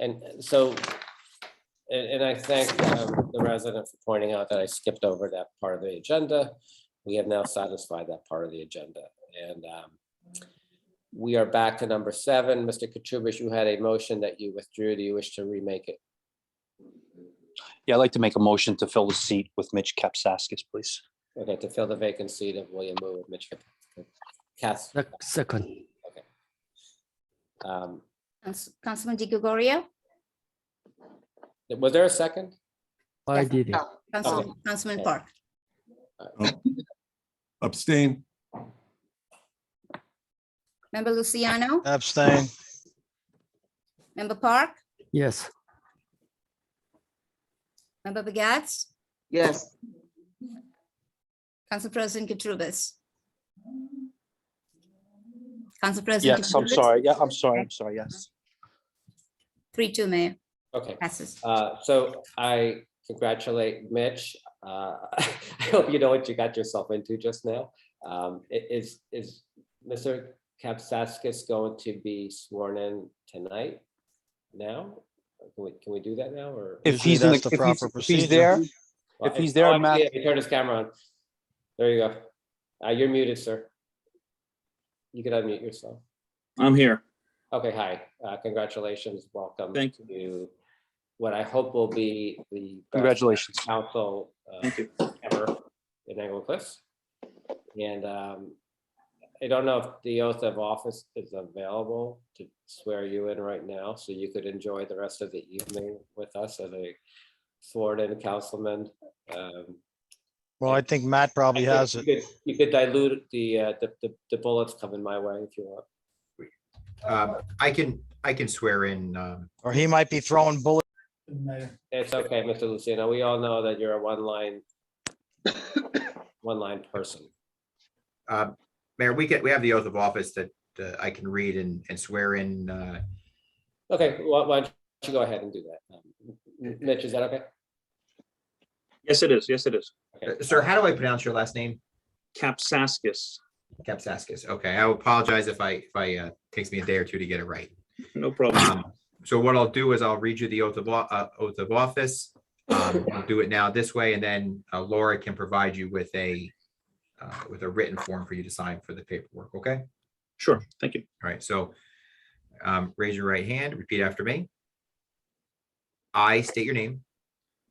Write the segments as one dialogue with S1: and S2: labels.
S1: and uh, so, and, and I thank um, the resident for pointing out that I skipped over that part of the agenda. We have now satisfied that part of the agenda, and um, we are back to number seven. Mr. Kachubish, you had a motion that you withdrew. Do you wish to remake it?
S2: Yeah, I'd like to make a motion to fill the seat with Mitch Kapsaskis, please.
S1: Okay, to fill the vacant seat of William Wu with Mitch Cass.
S3: Sec- Second,
S1: um,
S4: Cons- Councilman Di Gregorio?
S1: Was there a second?
S3: I did it.
S4: Oh, Council- Councilman Park?
S5: Abstain.
S4: Member Luciano?
S6: Abstain.
S4: Member Park?
S3: Yes,
S4: Member Begats?
S7: yes,
S4: Council President Katurbis? Council President?
S2: Yes, I'm
S4: Katurbis?
S2: sorry. Yeah, I'm sorry. I'm sorry. Yes.
S4: Three, two, Mayor,
S1: Okay.
S4: passes.
S1: Uh, So I congratulate Mitch. Uh, I hope you know what you got yourself into just now. Um, i- Is, is Mr. Kapsaskis going to be sworn in tonight? Now? Can we, can we do that now or?
S2: If
S6: Usually
S2: he's in the,
S6: that's the
S2: if he's-
S6: proper
S2: if he's there,
S1: Well,
S2: if he's
S1: oh,
S2: there,
S1: I see
S2: Matt-
S1: it. He turned his camera on. There you go. Uh, You're muted, sir. You could unmute yourself.
S8: I'm here.
S1: Okay, hi. Uh, Congratulations. Welcome.
S8: Thank
S1: you. What I hope will be the. best
S2: congratulations.
S1: council uh,
S8: Thank you.
S1: ever in Niagara Cliffs. And um, I don't know if the oath of office is available to swear you in right now, so you could enjoy the rest of the evening with us as a sworn-in councilman. Um,
S6: Well, I think Matt
S1: I
S6: probably
S1: think
S6: has
S1: you
S6: it.
S1: could- You could dilute the, uh, the- the- the bullets coming my way if you want.
S9: Um, I can, I can swear in, um,
S6: Or he might be throwing bullets.
S1: It's okay, Mr. Luciano. We all know that you're a one-line, one-line person.
S9: uh, Mayor, we get, we have the oath of office that uh, I can read and, and swear in. uh,
S1: Okay, why why don't you go ahead and do that? Um, Mitch, is that okay?
S8: Yes, it is. Yes, it is.
S1: Okay.
S9: Uh, Sir, how do I pronounce your last name?
S8: Capsaskis,
S9: Kapsaskis. Okay, I apologize if I, if I, uh, takes me a day or two to get it right.
S8: no problem.
S9: Um, So what I'll do is I'll read you the oath of, o- uh, oath of office. Um, I'll do it now this way, and then uh, Laura can provide you with a, uh, with a written form for you to sign for the paperwork, okay?
S8: Sure, thank you.
S9: All right, so um, raise your right hand, repeat after me. I state your name,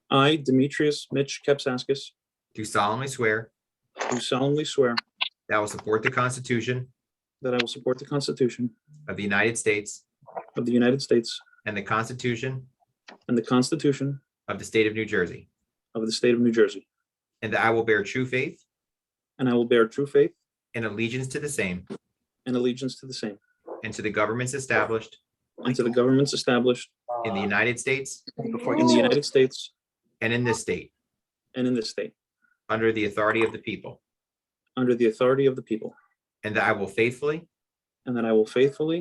S8: I, Demetrius Mitch Capsaskis,
S9: do solemnly swear
S8: do solemnly swear
S9: that I will support the Constitution
S8: that I will support the Constitution
S9: of the United States
S8: of the United States
S9: and the Constitution
S8: and the Constitution
S9: of the State of New Jersey,
S8: of the State of New Jersey,
S9: and that I will bear true faith
S8: and I will bear true faith
S9: and allegiance to the same
S8: and allegiance to the same,
S9: and to the governments established
S8: and to the governments established
S1: Uh,
S9: in the United States
S8: in the United States
S9: and in this state,
S8: and in this state,
S9: under the authority of the people,
S8: under the authority of the people,
S9: and that I will faithfully,
S8: and that I will faithfully,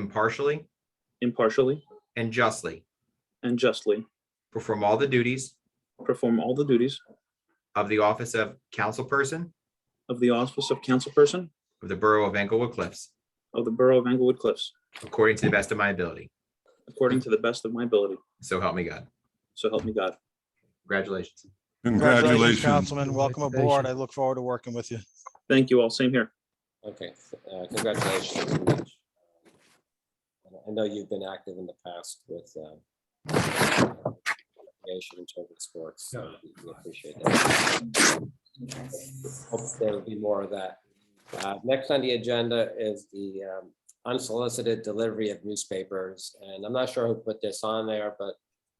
S9: impartially,
S8: impartially,
S9: and justly
S8: and justly
S9: perform all the duties
S8: perform all the duties
S9: of the office of councilperson
S8: of the office of councilperson
S9: of the Borough of Englewood Cliffs,
S8: of the Borough of Englewood Cliffs,
S9: according to the best of my ability.
S8: according to the best of my ability.
S9: So help me God.
S8: So help me God.
S9: Congratulations.
S5: Congratulations.
S6: Councilman, welcome aboard. I look forward to working with you.
S8: Thank you all. Same here.
S1: Okay, uh, congratulations. Mitch. And I know you've been active in the past with um, recreation and children's sports. so we- we Appreciate that. Hope there will be more of that. Uh, Next on the agenda is the um, unsolicited delivery of newspapers. And I'm not sure who put this on there, but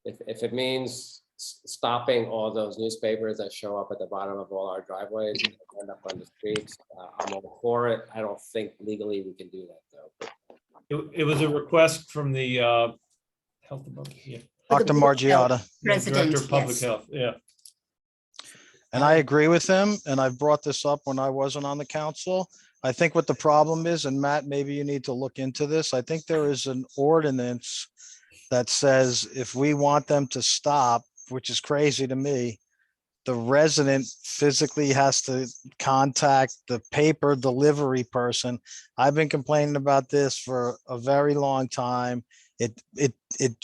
S1: if, if it means s- stopping all those newspapers that show up at the bottom of all our driveways and end up on the streets, uh, I'm all for it. I don't think legally we can do that, though. But
S10: It, it was a request from the uh, Health Department, yeah.
S4: For the
S6: Dr.
S4: Board of Health
S6: Margiotta,
S4: President,
S10: Director of Public
S4: yes.
S10: Health, yeah.
S6: and I agree with him, and I brought this up when I wasn't on the council. I think what the problem is, and Matt, maybe you need to look into this, I think there is an ordinance that says if we want them to stop, which is crazy to me, the resident physically has to contact the paper delivery person. I've been complaining about this for a very long time. It, it, it